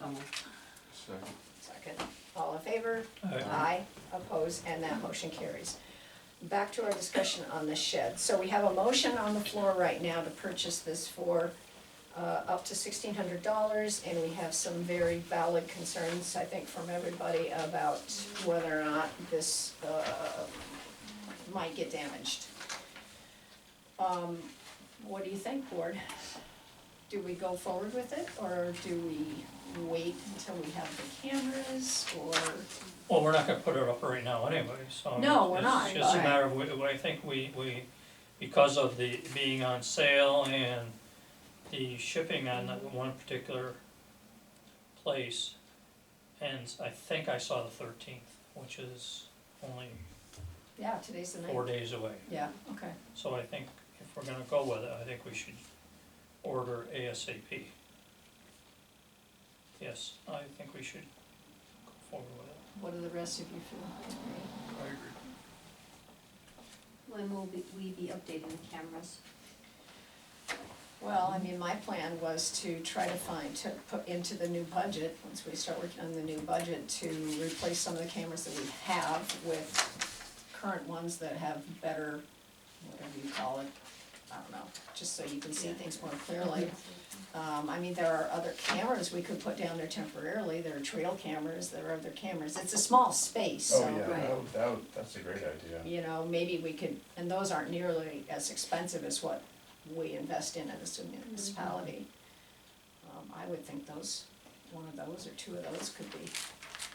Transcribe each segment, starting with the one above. Oh, Opposed, and that motion carries. Back to our discussion on the shed. So we have a motion on the floor right now to purchase this for uh, up to sixteen hundred dollars, and we have some very valid concerns, I think, from everybody about whether or not this, uh, might get damaged. Um, what do you think, board? Do we go forward with it, or do we wait until we have the cameras, or, Well, we're not gonna put it up right now anyway, so. No, we're not, It's just a but- matter of, we- I think we, we, because of the being on sale and the shipping on that one particular place, and I think I saw the thirteenth, which is only yeah, today's the four night? days away. Yeah, okay, So I think if we're gonna go with it, I think we should order ASAP. Yes, I think we should go forward with it. what do the rest of you feel? I agree. When will we, we be updating the cameras? Well, I mean, my plan was to try to find, to put into the new budget, once we start working on the new budget, to replace some of the cameras that we have with current ones that have better, whatever you call it, I don't know, just so you can see things more clearly. Um, I mean, there are other cameras we could put down there temporarily, there are trail cameras, there are other cameras, it's a small space, so. Oh, yeah, that Right. would, that would, that's a great idea. you know, maybe we could, and those aren't nearly as expensive as what we invest in as a Mm-hmm. municipality. Um, I would think those, one of those or two of those could be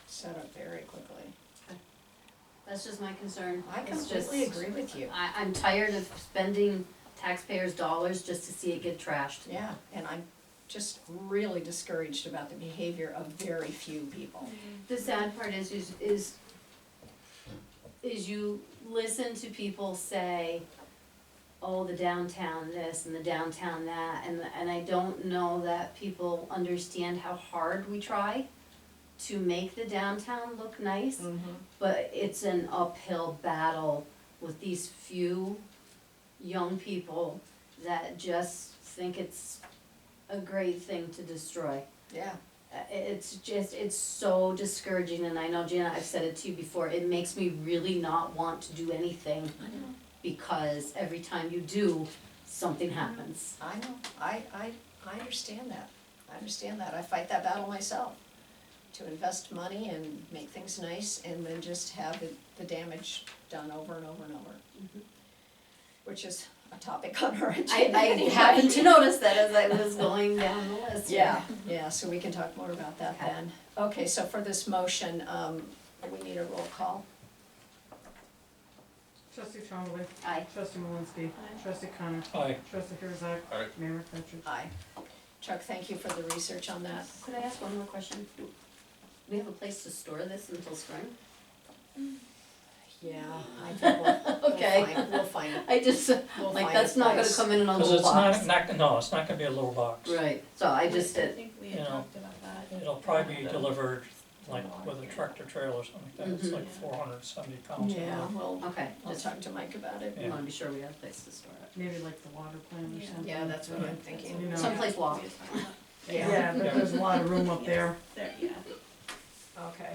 set up very quickly. That's just my concern. I It's completely just- agree with you, I, I'm tired of spending taxpayers' dollars just to see it get trashed. yeah, and I'm just really discouraged about the behavior of very few people. The sad part is, is, is, is you listen to people say, oh, the downtown this and the downtown that, and, and I don't know that people understand how hard we try to make the downtown look nice. But it's an uphill battle with these few young people that just think it's a great thing to destroy. Yeah, Uh, i- It's just, it's so discouraging, and I know Jana, I've said it to you before, it makes me really not want to do anything I know, because every time you do, something happens. I know, I, I, I understand that, I understand that, I fight that battle myself. To invest money and make things nice and then just have the, the damage done over and over and over. Which is a topic on our agenda I, I anyway. happened to notice that as I was going down the list. Yeah, yeah, so we can talk more about that Okay. then. Okay, so for this motion, um, we need a roll call. Trustee Trombley. Aye. Trustee Malinsky. Trustee Connor. Aye. Trustee Herzog. Aye. Mayor McFetrich. Aye. Chuck, thank you for the research on that. Uh, Could I ask one more question? We have a place to store this until spring? Yeah, I think we'll, we'll Okay. find, we'll find, I just, we'll like, find that's a not gonna place. come in in a Cause little it's not, box. not, no, it's not gonna be a little box. Right, so I just I did, think we you had know, talked about that. It'll probably be delivered like with a tractor trailer or something like that, it's Mhm. like four hundred seventy pounds. Yeah, we'll, okay, I'll just, talk to Mike about it. I wanna be sure we have a place to store it. Maybe like the water plant or Yeah. something. Yeah, that's what I'm thinking. You know. Someplace locked. Yeah, but there's a lot of room up there. There, yeah. Okay.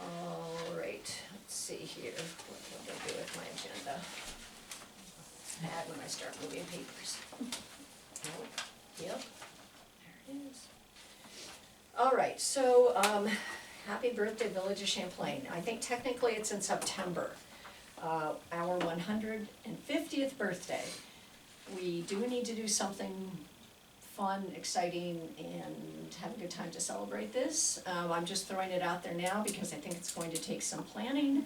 All right, let's see here, what did I do with my agenda? It's bad when I start moving papers. Nope, Yep, there it is. All right, so, um, happy birthday Village of Champlain. I think technically it's in September, uh, our one hundred and fiftieth birthday. We do need to do something fun, exciting, and have a good time to celebrate this. Um, I'm just throwing it out there now because I think it's going to take some planning.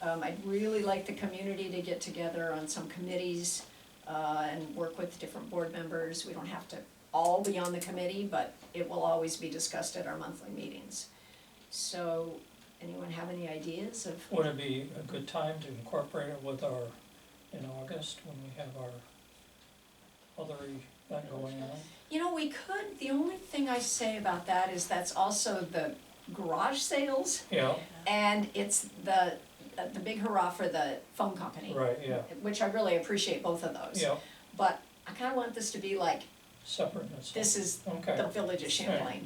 Um, I'd really like the community to get together on some committees, uh, and work with different board members. We don't have to all be on the committee, but it will always be discussed at our monthly meetings. So, anyone have any ideas of, Would it be a good time to incorporate it with our, in August, when we have our other event going on? you know, we could, the only thing I say about that is that's also the garage sales. Yeah, And it's the, uh, the big hurrah for the phone company. right, yeah, Which I really appreciate both of those. yeah, But I kinda want this to be like, separateness, this is okay. the village of Champlain.